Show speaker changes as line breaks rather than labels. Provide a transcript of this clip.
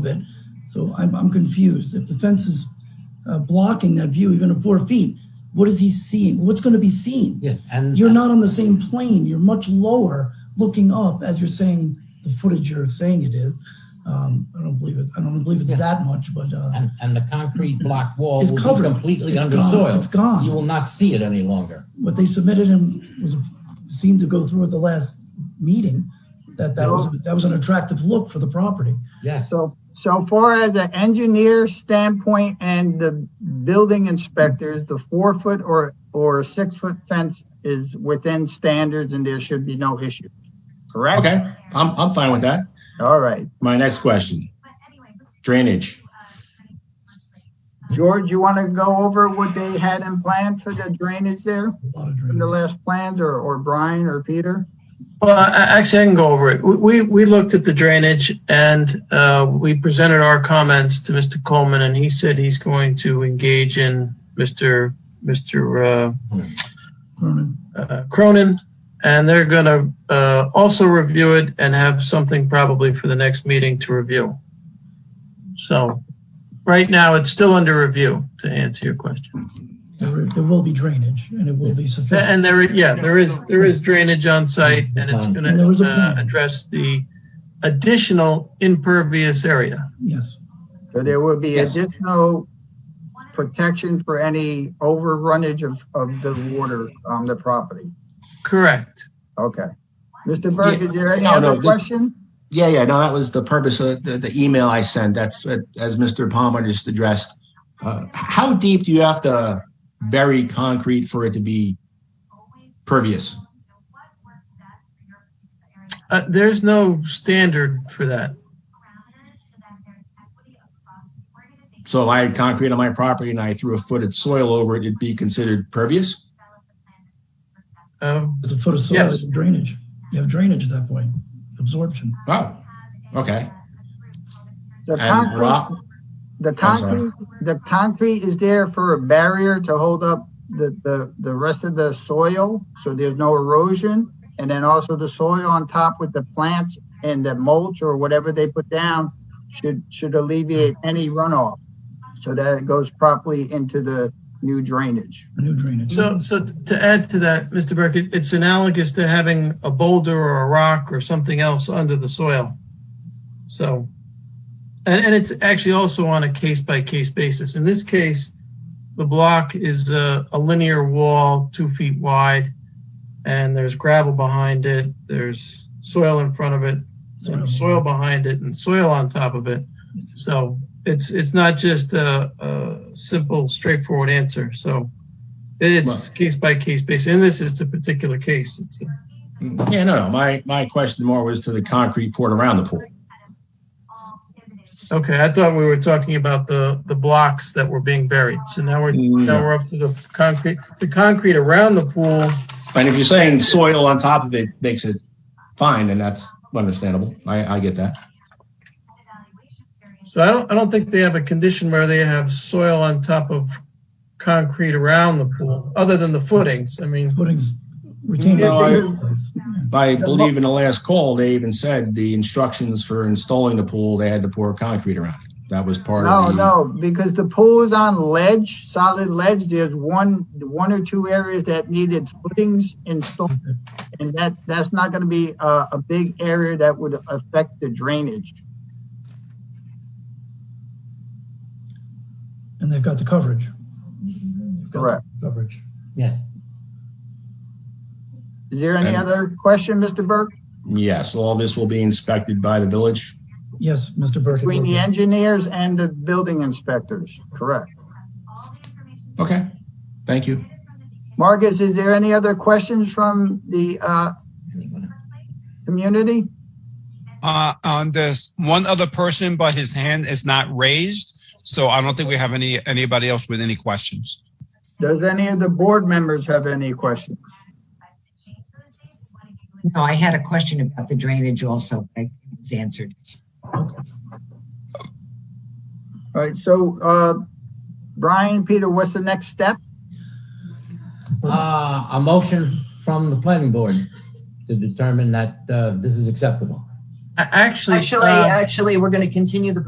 bit. So I'm, I'm confused. If the fence is uh, blocking that view even at four feet, what is he seeing? What's going to be seen?
Yes, and.
You're not on the same plane. You're much lower looking up as you're saying the footage you're saying it is. Um, I don't believe it. I don't believe it's
Yeah.
that much, but uh,
And, and the concrete block wall
It's
will be
covered.
completely
It's
under
gone.
soil.
It's gone.
You will not see it any longer.
what they submitted and was seemed to go through at the last meeting that that was that was an attractive look for the property.
Yes,
So, so far as an engineer standpoint and the building inspectors, the four foot or, or six foot fence is within standards and there should be no issue. Correct?
Okay, I'm, I'm fine with that.
All right.
My next question, drainage.
George, you want to go over what they had in plan for the drainage there
A lot of
from the
drainage.
last plans or, or Brian or Peter?
Well, I- actually, I can go over it. We- We, we looked at the drainage and uh, we presented our comments to Mr. Coleman and he said he's going to engage in Mr. Mr.
Vernon.
uh, uh, Cronin. And they're going to uh, also review it and have something probably for the next meeting to review. So right now, it's still under review to answer your question.
There, there will be drainage and it will be sufficient.
And there, yeah, there is, there is drainage on site and it's
And there
gonna
was a
uh,
plan.
address the additional impervious area.
Yes.
So there will be
Yes.
additional protection for any overrunnage of, of the water on the property.
Correct.
Okay. Mr. Berg, is there any
No, no,
other
this-
question?
Yeah, yeah, no, that was the purpose of the, the email I sent. That's, uh, as Mr. Palmer just addressed. Uh, How deep do you have to bury concrete for it to be pervious?
Uh, there's no standard for that.
So if I had concrete on my property and I threw a foot of soil over it, it'd be considered pervious?
Uh,
It's a foot of soil
Yes.
and drainage. You have drainage at that point, absorption.
Oh, okay.
The
And
concrete,
rock,
the
I'm sorry.
concrete, the concrete is there for a barrier to hold up the, the, the rest of the soil, so there's no erosion. And then also the soil on top with the plants and the mulch or whatever they put down should, should alleviate any runoff. So that it goes properly into the new drainage.
A new drainage.
so, so t- to add to that, Mr. Burke, it- it's analogous to having a boulder or a rock or something else under the soil. So, and, and it's actually also on a case by case basis. In this case, the block is a, a linear wall, two feet wide, and there's gravel behind it. There's soil in front of it,
Soil.
and soil behind it, and soil on top of it. So it's it's not just a, a simple, straightforward answer. So it's
Right.
case by case basis. In this, it's a particular case. It's a,
yeah, no, no, my, my question more was to the concrete poured around the pool.
Okay, I thought we were talking about the, the blocks that were being buried. So now we're, now we're up to the concrete, the concrete around the pool.
And if you're saying soil on top of it makes it fine, then that's understandable. I, I get that.
So I don't, I don't think they have a condition where they have soil on top of concrete around the pool, other than the footings. I mean,
Footings, retaining.
No, I-
place.
I believe in the last call, they even said the instructions for installing the pool, they had to pour concrete around it. That was part
No,
of the,
no, because the pool is on ledge, solid ledge. There's one, one or two areas that needed footings installed. And that, that's not gonna be a, a big area that would affect the drainage.
And they've got the coverage. They've got the
Correct.
Coverage.
yes.
Is there any
And-
other question, Mr. Burke,
yes, all this will be inspected by the village.
Yes, Mr. Burke. it
between
will
the
be.
engineers and the building inspectors? Correct.
Okay, thank you.
Marcus, is there any other questions from the, uh,
Anyone?
community?
uh, on this. One other person, but his hand is not raised. So I don't think we have any, anybody else with any questions.
Does any of the board members have any questions?
No, I had a question about the drainage also, but it was answered.
All right, so, uh, Brian, Peter, what's the next step?
Uh, a motion from the planning board to determine that, uh, this is acceptable.
a- actually.
Actually,
uh,
actually, we're going to continue the